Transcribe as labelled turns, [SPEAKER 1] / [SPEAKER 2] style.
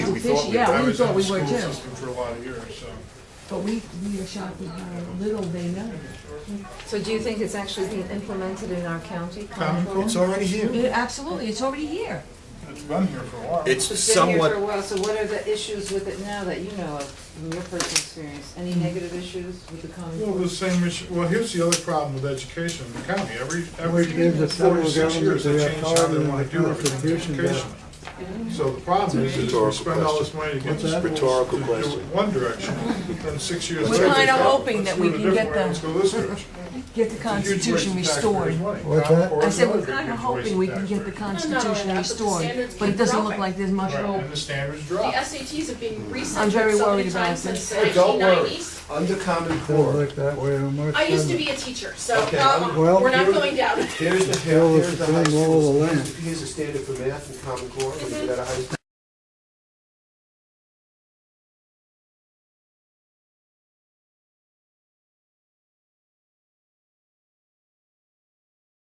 [SPEAKER 1] we thought
[SPEAKER 2] fishy,
[SPEAKER 1] we were.
[SPEAKER 2] yeah,
[SPEAKER 3] I
[SPEAKER 2] we
[SPEAKER 3] was in
[SPEAKER 2] thought
[SPEAKER 3] the
[SPEAKER 2] we were
[SPEAKER 3] school
[SPEAKER 2] too.
[SPEAKER 3] system for a lot of years, so.
[SPEAKER 2] But we, we are shocked at how little they know.
[SPEAKER 4] So do you think it's actually being implemented in our county?
[SPEAKER 3] Um, It's already here.
[SPEAKER 2] It- Absolutely, it's already here.
[SPEAKER 3] It's been here for a while.
[SPEAKER 1] It's
[SPEAKER 4] It's been here for a
[SPEAKER 1] somewhat,
[SPEAKER 4] while, so what are the issues with it now that you know of, from your personal experience? Any negative issues with the Common
[SPEAKER 3] Well,
[SPEAKER 4] Core?
[SPEAKER 3] the same issue, well, here's the other problem with education in the county, every,
[SPEAKER 5] We
[SPEAKER 3] every
[SPEAKER 5] gave the federal
[SPEAKER 3] forty-six years, they
[SPEAKER 5] government the
[SPEAKER 3] change how they
[SPEAKER 5] authority
[SPEAKER 3] wanna
[SPEAKER 5] and
[SPEAKER 3] do it for
[SPEAKER 5] contribution
[SPEAKER 3] education. So the problem is, is we
[SPEAKER 6] Rhetorical
[SPEAKER 3] spend all this
[SPEAKER 6] question.
[SPEAKER 3] money to get
[SPEAKER 5] What's
[SPEAKER 3] schools
[SPEAKER 5] that?
[SPEAKER 3] to
[SPEAKER 6] Rhetorical
[SPEAKER 3] do it
[SPEAKER 6] question.
[SPEAKER 3] one direction, then six years
[SPEAKER 2] We're
[SPEAKER 3] later. they
[SPEAKER 2] kinda
[SPEAKER 3] go,
[SPEAKER 2] hoping
[SPEAKER 3] "Let's
[SPEAKER 2] that
[SPEAKER 3] do
[SPEAKER 2] we
[SPEAKER 3] it a
[SPEAKER 2] can
[SPEAKER 3] different
[SPEAKER 2] get
[SPEAKER 3] way,
[SPEAKER 2] the-
[SPEAKER 3] Let's go this direction.
[SPEAKER 2] Get the
[SPEAKER 3] It's a huge waste
[SPEAKER 2] Constitution
[SPEAKER 3] of taxpayers'
[SPEAKER 2] restored.
[SPEAKER 3] money.
[SPEAKER 5] What's
[SPEAKER 3] Not
[SPEAKER 5] that?
[SPEAKER 3] for
[SPEAKER 2] I said, we're
[SPEAKER 3] another
[SPEAKER 2] kind
[SPEAKER 3] huge
[SPEAKER 2] of
[SPEAKER 3] waste
[SPEAKER 2] hoping we can
[SPEAKER 3] of
[SPEAKER 2] get the
[SPEAKER 3] taxpayers.
[SPEAKER 2] Constitution
[SPEAKER 7] that, but the
[SPEAKER 2] restored,
[SPEAKER 7] standards
[SPEAKER 2] but it
[SPEAKER 7] keep
[SPEAKER 2] doesn't look
[SPEAKER 7] dropping.
[SPEAKER 2] like there's much
[SPEAKER 3] Right,
[SPEAKER 2] hope.
[SPEAKER 3] and the standards
[SPEAKER 7] The
[SPEAKER 3] drop.
[SPEAKER 7] SATs have been
[SPEAKER 2] I'm
[SPEAKER 7] reset
[SPEAKER 2] very
[SPEAKER 7] so
[SPEAKER 2] worried
[SPEAKER 7] many
[SPEAKER 2] about
[SPEAKER 7] times
[SPEAKER 2] this.
[SPEAKER 7] since the
[SPEAKER 6] Hey, Don't worry,
[SPEAKER 7] 1990s.
[SPEAKER 6] under Common
[SPEAKER 5] Doesn't
[SPEAKER 6] Core,
[SPEAKER 5] look that way on my
[SPEAKER 7] I used to
[SPEAKER 5] side.
[SPEAKER 7] be a teacher, so
[SPEAKER 6] Okay,
[SPEAKER 7] um,
[SPEAKER 5] well,
[SPEAKER 7] we're not
[SPEAKER 5] here-
[SPEAKER 7] going down.
[SPEAKER 6] here's the,
[SPEAKER 5] Still,
[SPEAKER 6] here's
[SPEAKER 5] it's
[SPEAKER 6] the
[SPEAKER 5] been
[SPEAKER 6] high
[SPEAKER 5] all the
[SPEAKER 6] school,
[SPEAKER 5] land.
[SPEAKER 6] here's the standard for math in Common Core, when you get out of high school.